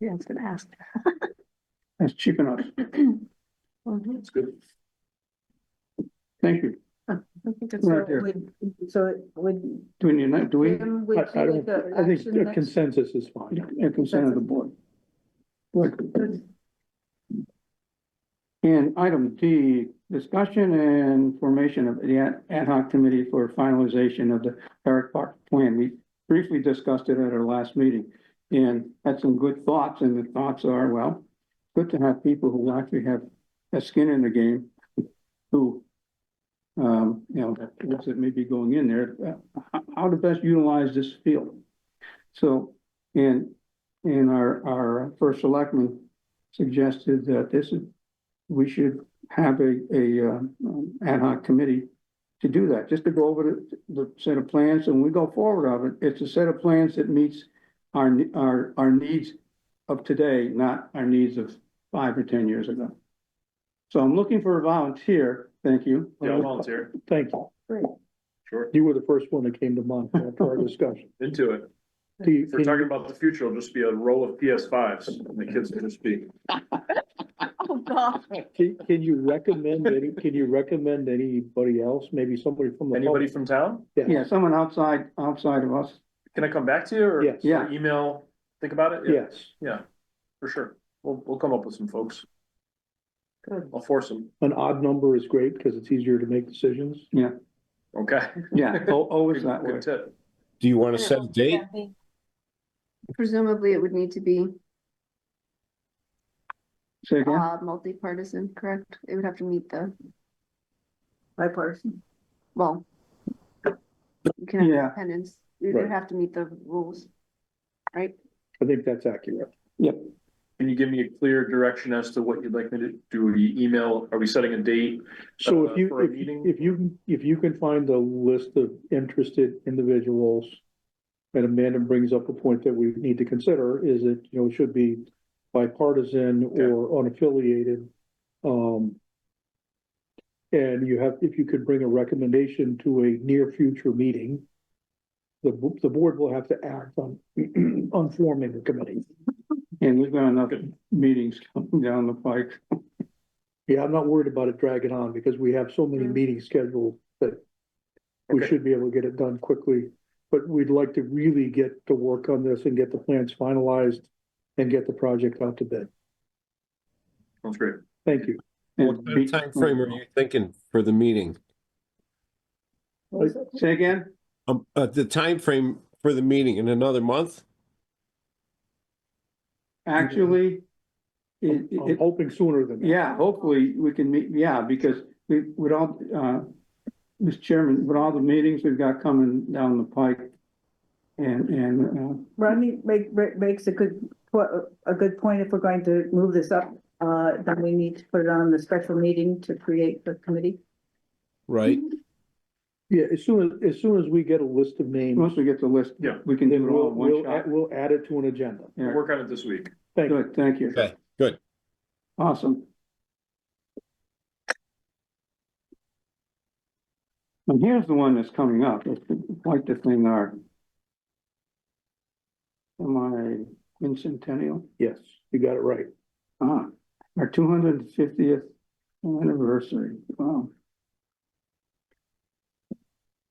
Yeah, I was gonna ask. That's cheap enough. Mhm. That's good. Thank you. I think it's- Right there. Would, so it would, Do we need, that? do we? Jim, would I you I like don't, a I think action a next- consensus is fine. A consent of the board. Good. And item D, discussion and formation of the ad- ad hoc committee for finalization of the Herrick Park plan. We briefly discussed it at our last meeting and had some good thoughts, and the thoughts are, well, good to have people who actually have a skin in the game, who, um, you know, folks that may be going in there, uh, how- how to best utilize this field. So, and and our, our first selectman suggested that this is, we should have a, a, uh, um, ad hoc committee to do that, just to go over the, the set of plans, and when we go forward of it, it's a set of plans that meets our, ne- our, our needs of today, not our needs of five or ten years ago. So I'm looking for a volunteer, thank you. Yeah, I'll volunteer, Thank you. sure, You were the first one that came to mind after our discussion. into it. Do you- If we're talking about the future, it'll just be a row of PS fives, and the kids will just be, Oh, God. Can, can you recommend any, can you recommend anybody else, maybe somebody from the? anybody from town? Yeah, someone outside, outside of us, Can I come back to you or? Yes. Yeah. Email, think about it? Yes, For sure, we'll, we'll come up with some folks, Good. I'll force them, an odd number is great because it's easier to make decisions. okay? yeah, al- always that way. Good tip, Do you want to set a date? presumably it would need to be Say again, Uh, multi-partisan, correct? It would have to meet the, bipartisan. well. You can have Yeah. independence, you would Right. have to meet the rules, right? I think that's accurate. can you give me a clear direction as to what you'd like me to do, you email, are we setting a date? So Uh, if you, for a if, meeting? if you, if you can find a list of interested individuals. And Amanda brings up a point that we need to consider is that, you know, it should be bipartisan Okay. or unaffiliated. Um. And you have, if you could bring a recommendation to a near future meeting. The, bo- the board will have to act on, on forming a committee. and we've got enough meetings coming down the pike. Yeah, I'm not worried about it dragging on because we have so many Mm. meetings scheduled that we Okay. should be able to get it done quickly. But we'd like to really get to work on this and get the plans finalized and get the project out to bid. Sounds great. Thank you. What kind of timeframe are you thinking for the meeting? Say again? Um, uh, the timeframe for the meeting in another month? Actually, it, I'm it, hoping sooner than that. yeah, hopefully we can meet, yeah, because we, with all, uh, Mr. Chairman, with all the meetings we've got coming down the pike and, and, uh, Rodney make, make- makes a good, po- a good point. If we're going to move this up, uh, then we need to put it on the special meeting to create the committee. Right. Yeah, as soon as, as soon as we get a list of uh, names, once we get the list, Yeah. we can do then it all we'll, in one we'll, add- shot. we'll add it to an agenda. We'll Yeah, work on it this week. Thank you. good, thank you. Okay, good. Awesome. And here's the one that's coming up, it's quite the thing, our my quincentennial. Yes, you got it right. Ah, our two hundred and fiftieth anniversary, wow.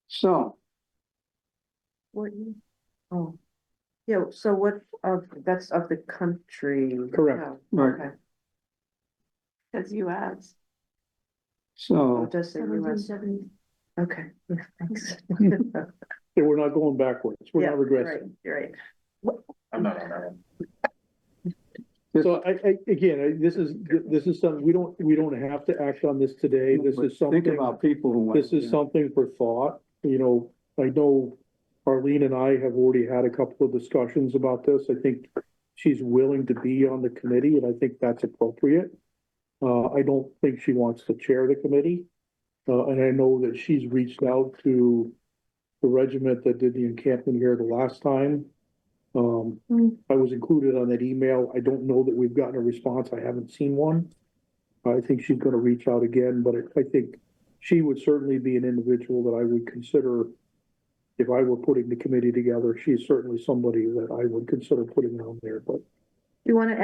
So, Oh, yeah, so what of, that's of the country. Oh, Correct. right, That's US. so, Does okay, thanks. And we're not going backwards. We're not regressing. Right. I'm not on that one. So I, I, again, I, this is, this is something, we don't, we don't have to act on this today. This is something. think about people who went. This is something for thought, you know, I know Arlene and I have already had a couple of discussions about this. I think she's willing to be on the committee and I think that's appropriate. Uh, I don't think she wants to chair the committee. Uh, and I know that she's reached out to the regiment that did the encampment here the last time. Um, Mm. I was included on that email. I don't know that we've gotten a response. I haven't seen one. I think she's gonna reach out again, but I- I think she would certainly be an individual that I would consider if I were putting the committee together. She's certainly somebody that I would consider putting on there, but You wanna